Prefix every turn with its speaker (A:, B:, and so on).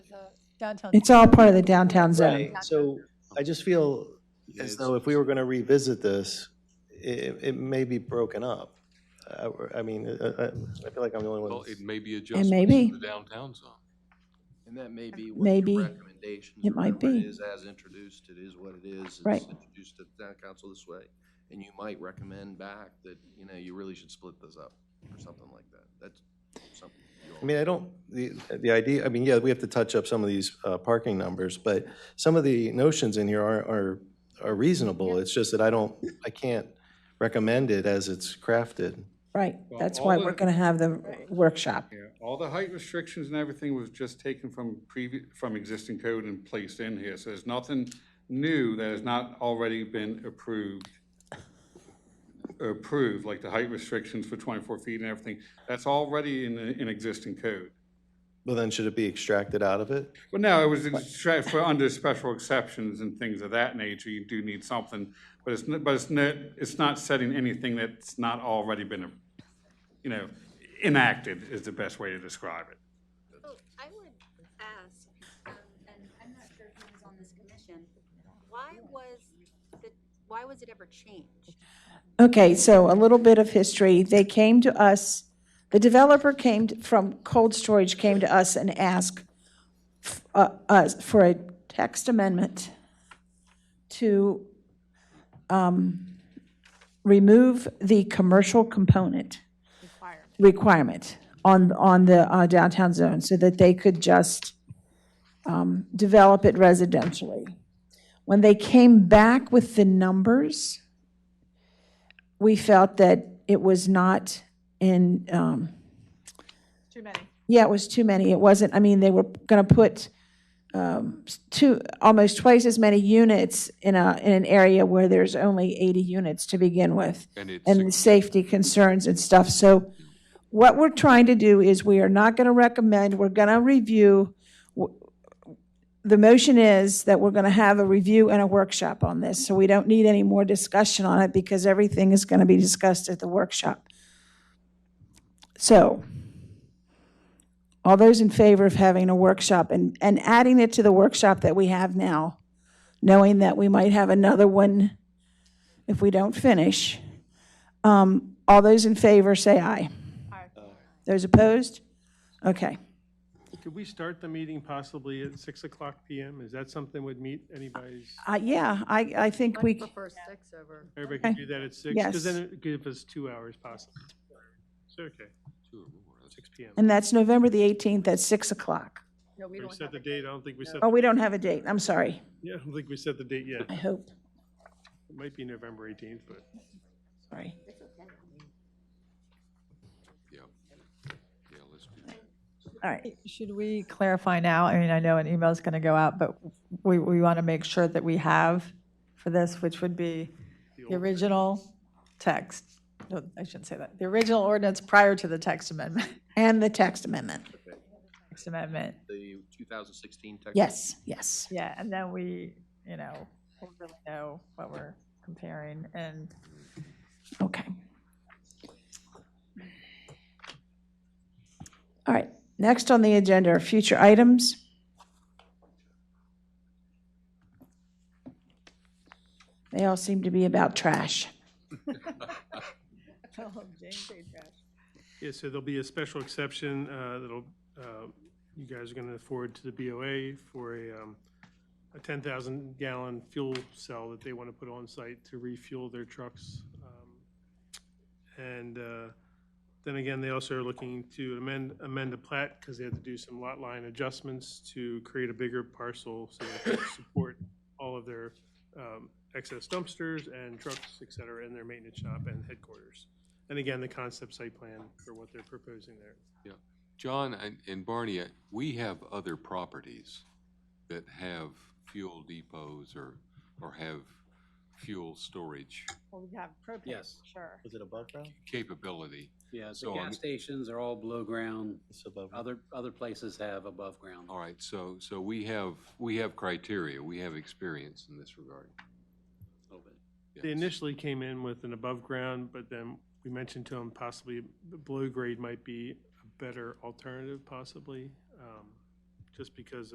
A: downtown.
B: It's all part of the downtown zone.
C: Right, so I just feel as though if we were going to revisit this, it, it may be broken up. I, I mean, I, I I feel like I'm the only one.
D: Well,
C: that's-
D: it may be adjustments
B: maybe.
D: to the downtown zone.
E: And that may be what
B: Maybe.
E: your recommendations.
B: It might
E: remember,
B: be.
E: It is as introduced, it is what it is. It's
B: Right.
E: Introduced to the town council this way, and you might recommend back that, you know, you really should split this up or something like that. That's something. you all-
C: I mean, I don't, the, the idea, I mean, yeah, we have to touch up some of these uh, parking numbers, but some of the notions in here are, are, are reasonable. It's just that I don't, I can't recommend it as it's crafted.
B: Right,
F: Well,
B: that's
F: all
B: why
F: the-
B: we're going to have the workshop.
F: Yeah, all the height restrictions and everything was just taken from previous, from existing code and placed in here, so there's nothing new that has not already been approved. Approved, like the height restrictions for twenty-four feet and everything, that's already in, the- in existing code.
C: Well, then should it be extracted out of it?
F: Well, no, it was in stra- for under special exceptions and things of that nature, you do need something, but it's, n- but it's not, it's not setting anything that's not already been, you know, enacted is the best way to describe it.
G: So Oh, I would ask, um, and I'm not sure who was on this commission, why was the, why was it ever changed?
B: Okay, so a little bit of history. They came to us, the developer came t- from Cold Storage, came to us and asked f- uh, us for a text amendment to um, remove the commercial component requirement on, on the uh, downtown zone so that they could just um, develop it residentially. When they came back with the numbers, we felt that it was not in, um,
A: Too many.
B: yeah, it was too many. It wasn't, I mean, they were going to put um, s- two, almost twice as many units in a, in an area where there's only 80 units to begin with
D: And it's,
B: and the safety concerns and stuff. So what we're trying to do is we are not going to recommend, we're going to review. W- The motion is that we're going to have a review and a workshop on this, so we don't need any more discussion on it because everything is going to be discussed at the workshop. So all those in favor of having a workshop and, and adding it to the workshop that we have now, knowing that we might have another one if we don't finish. Um, All those in favor, say aye.
A: Aye.
B: Those opposed? Okay.
H: Could we start the meeting possibly at 6 o'clock PM? Is that something would meet anybody's,
B: Uh, Yeah, I, I think we,
G: six over.
H: everybody can do that at 6? Because then
B: Yes.
H: it would give us two hours possibly. So, Okay,
D: two or more, that's-
H: 6 PM.
B: and that's November the 18th at 6 o'clock.
A: No, we
H: We set the date, I don't think we set,
B: Oh, we don't have a date, I'm sorry,
H: yeah, I don't think we set the date yet.
B: I hope,
H: It might be November 18th, but
B: sorry.
D: yeah. Yeah, let's do that.
B: All right,
A: Should we clarify now? I mean, I know an email is going to go out, but we, we want to make sure that we have for this, which would be the original text. No, I shouldn't say that. The original ordinance prior to the text amendment,
B: and the text amendment.
A: text amendment.
E: The 2016 text.
B: Yes, yes.
A: Yeah, and then we, you know, we'll really know what we're comparing and
B: Okay. All right, next on the agenda are future items. They all seem to be about trash.
H: Yeah, so there'll be a special exception uh, that'll, uh, you guys are going to forward to the BOA for a um, a 10,000 gallon fuel cell that they want to put on site to refuel their trucks. Um, And uh, then again, they also are looking to amend, amend the plat because they had to do some lot line adjustments to create a bigger parcel so that they can support all of their um, excess dumpsters and trucks, et cetera, in their maintenance shop and headquarters. And again, the concept site plan for what they're proposing there.
D: John and- and Barney, uh, we have other properties that have fuel depots or, or have fuel storage
A: Well, we have propane.
I: Yes.
A: Sure.
C: Was it above ground?
D: capability.
I: Yeah,
D: So
I: the
D: I'm-
I: gas stations are all below ground.
C: It's above.
I: Other, other places have above ground.
D: All right, so, so we have, we have criteria, we have experience in this regard.
I: a little bit.
D: Yes.
H: They initially came in with an above ground, but then we mentioned to them possibly the below grade might be a better alternative possibly, um, just because